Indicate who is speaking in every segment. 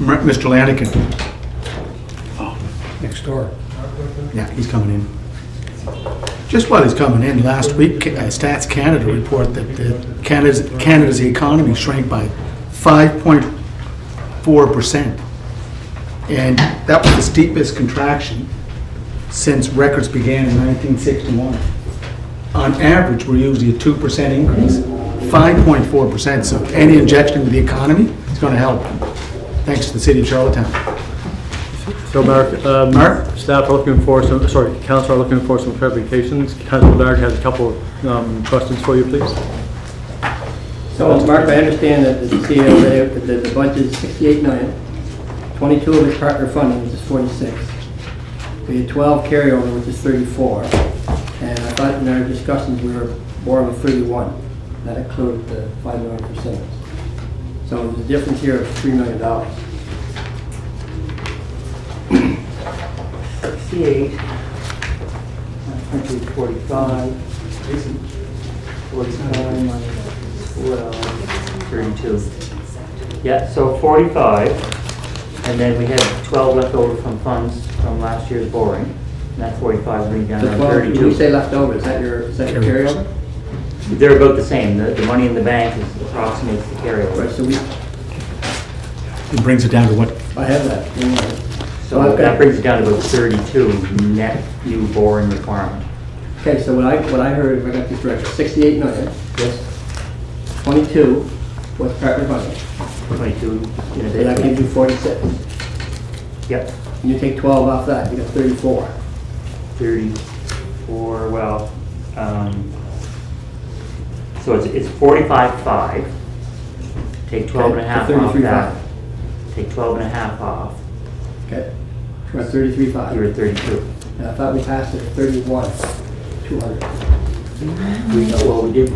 Speaker 1: M- Mr. Lanigan. Next door. Yeah, he's coming in. Just while he's coming in, last week, uh, Stats Canada report that the Canada's, Canada's economy shrank by 5.4%. And that was the steepest contraction since records began in 1961. On average, we're usually a 2% increase, 5.4%. So any injection into the economy is going to help, thanks to the city of Charlottetown.
Speaker 2: So Mark, um,
Speaker 1: Mark?
Speaker 2: staff are looking for some, sorry, council are looking for some clarifications. Council Lark has a couple of um, questions for you, please.
Speaker 3: So, Mark, I understand that the CEO, there, that the budget is 68 million, 22 of it's partner funding, which is 46. We had 12 carryover, which is 34. And I thought in our discussions, we were more of a 31. That included the 5 million for Simmons. So there's a difference here of $3 million. dollars.
Speaker 4: 68, 145, 49, 12. 32. Yeah, so 45, and then we had 12 left over from funds from last year's borrowing, and that 45 brings down
Speaker 3: The
Speaker 4: to
Speaker 3: 12, when we say
Speaker 4: 32.
Speaker 3: left over, is that your, is that your
Speaker 1: Carryover.
Speaker 3: carryover?
Speaker 4: They're about the same, the, the money in the bank is approximates the
Speaker 3: Right,
Speaker 4: carryover.
Speaker 3: so we,
Speaker 1: It brings it down to what
Speaker 3: I have that. in there. So
Speaker 4: So
Speaker 3: I've
Speaker 4: that
Speaker 3: got,
Speaker 4: brings it down to about 32 net new borrowing requirement.
Speaker 3: okay, so what I, what I heard, if I got this right, 68 million,
Speaker 4: Yes.
Speaker 3: 22 was partner funding.
Speaker 4: 22 in a
Speaker 3: So that gives you
Speaker 4: bit.
Speaker 3: 46.
Speaker 4: Yep.
Speaker 3: And you take 12 off that, you got 34.
Speaker 4: 34, well, um, so it's, it's 45.5. Take 12 and a
Speaker 3: Okay,
Speaker 4: half
Speaker 3: so
Speaker 4: off
Speaker 3: 33.5.
Speaker 4: that. Take 12 and a half off,
Speaker 3: Okay? We're at 33.5.
Speaker 4: you're at 32.
Speaker 3: And I thought we passed it at 31, 200.
Speaker 4: We, well, we did,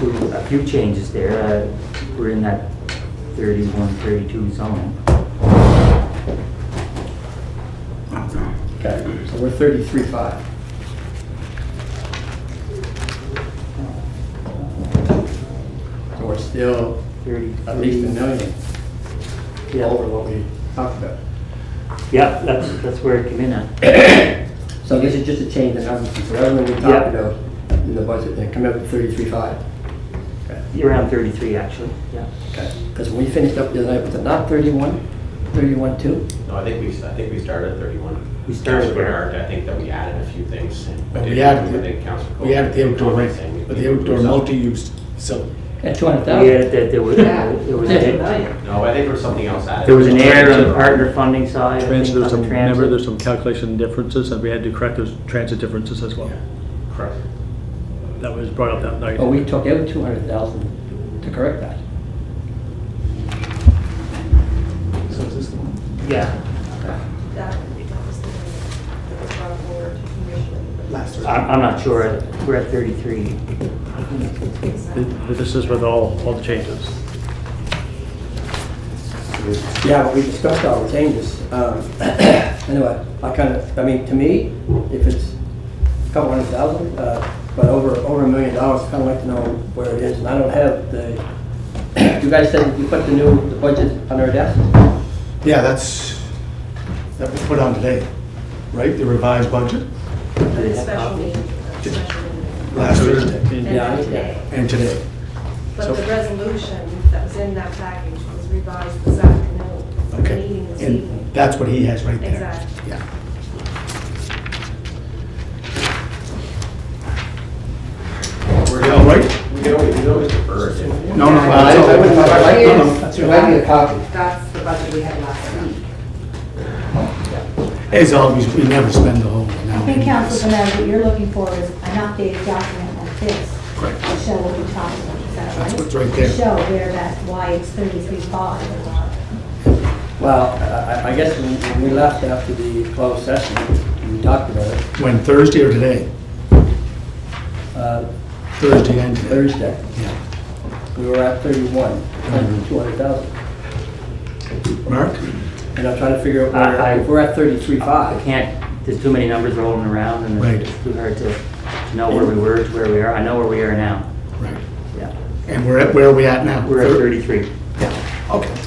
Speaker 4: we- a few changes there. Uh, We're in that 31, 32 zone.
Speaker 3: Okay, so we're 33.5. So we're still
Speaker 4: 30.
Speaker 3: at least a million
Speaker 4: Yeah.
Speaker 3: over what we talked about.
Speaker 4: Yeah, that's, that's where it came in at.
Speaker 3: So this is just a change in numbers, so everything we
Speaker 4: Yeah.
Speaker 3: talked about in the budget, they come out at 33.5. Okay.
Speaker 4: Around 33, actually, yeah.
Speaker 3: Because when we finished up the other night, was it not 31, 31 two?
Speaker 5: No, I think we, I think we started at 31.
Speaker 4: We started
Speaker 5: Councilor
Speaker 4: there.
Speaker 5: Bernard, I think that we added a few things. and
Speaker 1: But we
Speaker 5: did-
Speaker 1: added-
Speaker 5: I think Councilor
Speaker 1: We added the
Speaker 5: Coleman
Speaker 1: outdoor rink,
Speaker 5: saying
Speaker 1: but the outdoor
Speaker 5: it was up.
Speaker 1: multi-use facility.
Speaker 3: At 200,000?
Speaker 4: Yeah, that there was, there was, a-
Speaker 5: No, I think there was something else added.
Speaker 4: there was an error on the partner funding side. I think,
Speaker 2: Transit, there's
Speaker 4: on
Speaker 2: some,
Speaker 4: the
Speaker 2: remember,
Speaker 4: transit.
Speaker 2: there's some calculation differences, and we had to correct those transit differences as well.
Speaker 5: Correct.
Speaker 2: That was brought up that night.
Speaker 3: But Oh, we took out 200,000 to correct that.
Speaker 1: So is this the one?
Speaker 4: Yeah.
Speaker 6: That, that was the, that was brought forward to commission.
Speaker 1: Last one.
Speaker 4: I'm, I'm not sure, we're at 33.
Speaker 2: Th- This is with all, all the changes.
Speaker 3: Yeah, but we discussed all the changes. Um, Anyway, I kind of, I mean, to me, if it's a couple hundred thousand, uh, but over, over a million dollars, I'd kind of like to know where it is. And I don't have the, you guys said you put the new, the budget on our desk?
Speaker 1: Yeah, that's, that was put on today, right? The revised budget,
Speaker 6: The special meeting, the special meeting.
Speaker 1: last Thursday
Speaker 6: And
Speaker 3: Yeah, I-
Speaker 6: then today.
Speaker 1: and today.
Speaker 6: But the resolution that was in that package was revised this afternoon, for the
Speaker 1: Okay.
Speaker 6: meeting this
Speaker 1: And
Speaker 6: evening.
Speaker 1: that's what he has right there.
Speaker 6: Exactly.
Speaker 1: Yeah. We're all right?
Speaker 5: We can always, we can always defer it. didn't we?
Speaker 1: No, no,
Speaker 3: I
Speaker 1: no,
Speaker 3: wouldn't-
Speaker 1: no,
Speaker 3: I'd like-
Speaker 1: no, no.
Speaker 3: I'd like a copy.
Speaker 6: That's the budget we had last week.
Speaker 1: As always, we never spend the whole amount.
Speaker 7: I think, Councilor Bernard, what you're looking for is an updated document like this.
Speaker 1: Correct.
Speaker 7: To show what we talked about, is that right?
Speaker 1: That's what's right there.
Speaker 7: To show where that, why it's 33.5.
Speaker 3: Well, I- I I guess when when we left after the closed session, we talked about it
Speaker 1: When, Thursday or today?
Speaker 3: uh,
Speaker 1: Thursday and today.
Speaker 3: Thursday.
Speaker 1: Yeah.
Speaker 3: We were at 31, Mm-hmm. 200,000.
Speaker 1: Mark?
Speaker 3: And I'm trying to figure out,
Speaker 4: I- I-
Speaker 3: where- if we're at
Speaker 4: I
Speaker 3: 33.5,
Speaker 4: can't, there's too many numbers rolling around and
Speaker 1: Right.
Speaker 4: it's too hard to to know where we were to where we are. I know where we are now,
Speaker 1: Right.
Speaker 4: yeah.
Speaker 1: And we're at, where are we at now?
Speaker 4: We're at 33.
Speaker 1: Yeah, okay.